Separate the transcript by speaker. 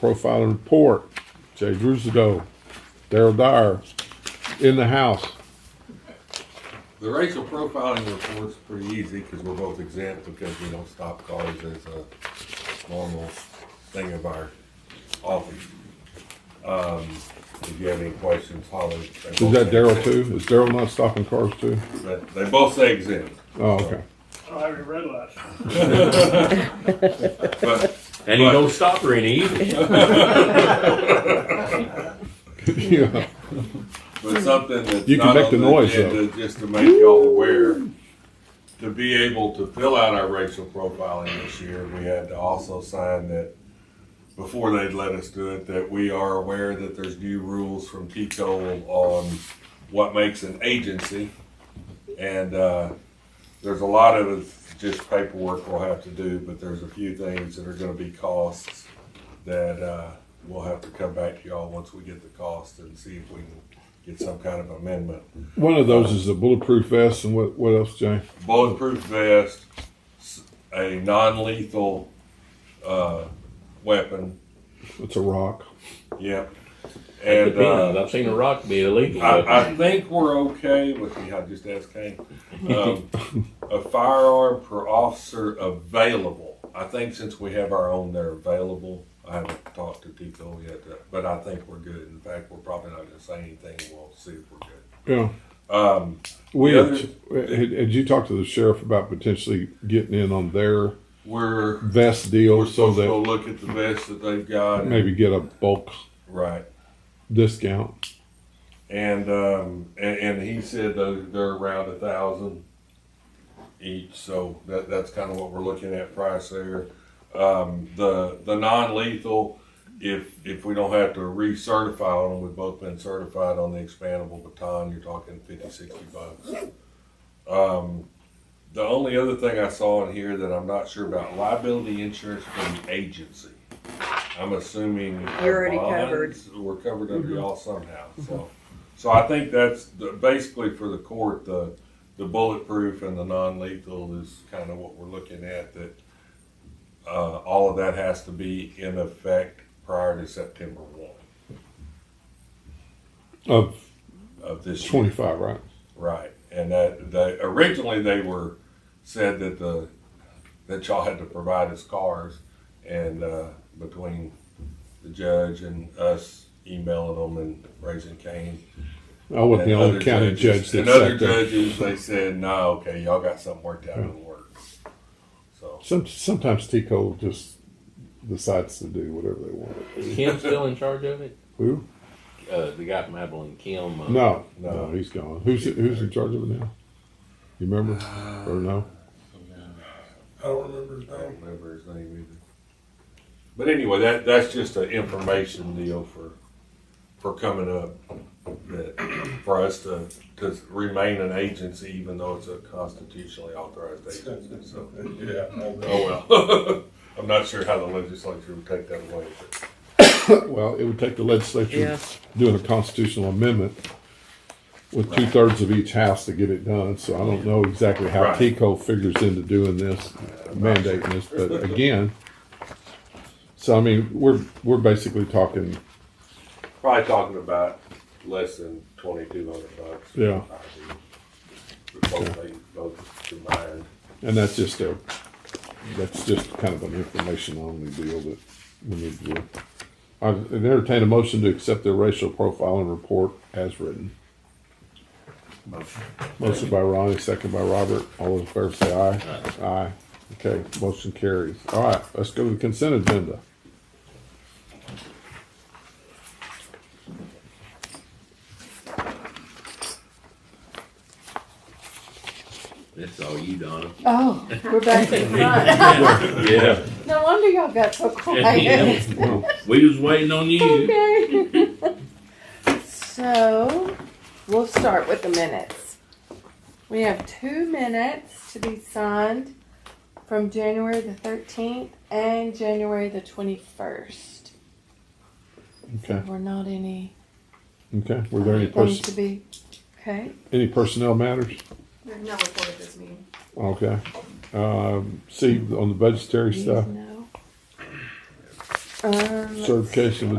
Speaker 1: Profile and report, Jay Drusado, Daryl Dyer, in the house.
Speaker 2: The racial profiling report's pretty easy because we're both exempt because we don't stop cars as a normal thing of our office. Um, if you have any questions, holler.
Speaker 1: Is that Daryl too? Is Daryl not stopping cars too?
Speaker 2: They both say exempt,
Speaker 1: Oh, okay.
Speaker 3: I'll have you red light.
Speaker 2: but
Speaker 4: And he
Speaker 2: Right.
Speaker 4: don't stop for any either.
Speaker 1: Yeah,
Speaker 2: but something that's
Speaker 1: You can
Speaker 2: not
Speaker 1: make
Speaker 2: on
Speaker 1: the noise, though.
Speaker 2: agenda, just to make y'all aware, to be able to fill out our racial profiling this year, we had to also sign that before they'd let us do it, that we are aware that there's new rules from TCOL on what makes an agency. And, uh, there's a lot of it's just paperwork we'll have to do, but there's a few things that are gonna be costs that, uh, we'll have to come back to y'all once we get the cost and see if we can get some kind of amendment.
Speaker 1: one of those is a bulletproof vest and what, what else, Jay?
Speaker 2: bulletproof vest, s- a non-lethal uh, weapon.
Speaker 1: It's a rock.
Speaker 2: Yep.
Speaker 4: It
Speaker 2: And
Speaker 4: depends.
Speaker 2: uh,
Speaker 4: I've seen a rock be illegal. but-
Speaker 2: I, I think we're okay with. I just asked Kane. Um, a firearm per officer available. I think since we have our own, they're available. I haven't talked to Tico yet, uh, but I think we're good. In fact, we're probably not going to say anything. We'll see if we're good.
Speaker 1: Yeah.
Speaker 2: Um,
Speaker 1: We,
Speaker 2: The
Speaker 1: had, had had you talked to the sheriff about potentially getting in on their
Speaker 2: we're
Speaker 1: vest
Speaker 2: we're
Speaker 1: deal so
Speaker 2: supposed to go
Speaker 1: that
Speaker 2: look at the vest that they've got. and-
Speaker 1: maybe get a bulk
Speaker 2: Right.
Speaker 1: discount?
Speaker 2: And um, and, and he said those they're around a thousand each, so that that's kind of what we're looking at price there. Um, the the non-lethal, if if we don't have to recertify on them, we've both been certified on the expandable baton. You're talking 50, 60 bucks. Um, the only other thing I saw in here that I'm not sure about liability insurance from the agency. I'm assuming our
Speaker 5: You're already Mm-hmm.
Speaker 2: bonds We're covered under y'all somehow. So, so I think that's the, basically for the court the the bulletproof and the non-lethal is kind of what we're looking at. That uh, all of that has to be in effect prior to September one
Speaker 1: Of
Speaker 2: of this year.
Speaker 1: twenty-five, right?
Speaker 2: Right, and that they originally they were said that the that y'all had to provide us cars, and uh, between the judge and us emailing them and raising cane,
Speaker 1: I wasn't the
Speaker 2: and
Speaker 1: only
Speaker 2: other
Speaker 1: county judge
Speaker 2: judges-
Speaker 1: that
Speaker 2: and other
Speaker 1: sat there.
Speaker 2: judges, they said no, okay, y'all got something worked out in the works. So
Speaker 1: Some, sometimes Tico just decides to do whatever they want.
Speaker 4: Is Kim still in charge of it?
Speaker 1: Who?
Speaker 4: Uh, the guy from Abilene, Kim. Uh,
Speaker 1: No,
Speaker 2: No.
Speaker 1: no, he's gone. Who's who's in charge of it now? You remember
Speaker 2: Uh,
Speaker 1: or no?
Speaker 2: I don't remember his name. I don't remember his name either. But anyway, that that's just an information deal for for coming up that for us to to remain an agency even though it's a constitutionally authorized agency. So
Speaker 6: Yeah, well,
Speaker 2: oh well. I'm not sure how the legislature would take that away. but-
Speaker 1: Well, it would take the legislature
Speaker 5: Yeah.
Speaker 1: doing a constitutional amendment with two thirds of each house to get it done. So I don't know exactly how
Speaker 2: Right.
Speaker 1: Tico figures into doing this, mandating this. But again, so I mean, we're we're basically talking.
Speaker 2: Probably talking about less than twenty two hundred bucks.
Speaker 1: Yeah.
Speaker 2: Before they both combined.
Speaker 1: And that's just a, that's just kind of an information only deal that we need to do. I entertain a motion to accept the racial profiling report as written. Motion by Ronnie, second by Robert. All those in favor say aye. Aye. Okay, motion carries. All right, let's go to the consent agenda.
Speaker 4: That's all you, Donna.
Speaker 7: Oh, we're back in front.
Speaker 4: Yeah.
Speaker 7: No wonder y'all got so quiet.
Speaker 4: We was waiting on you.
Speaker 7: Okay. So, we'll start with the minutes. We have two minutes to be signed from January the thirteenth and January the twenty-first.
Speaker 1: Okay,
Speaker 7: We're not any,
Speaker 1: okay. Were there any
Speaker 7: anything to
Speaker 1: person,
Speaker 7: be, okay?
Speaker 1: any personnel matters?
Speaker 8: There's no report at this meeting.
Speaker 1: Okay. Um, see, on the budgetary
Speaker 7: Please
Speaker 1: stuff,
Speaker 7: no. Um, let's
Speaker 1: certification of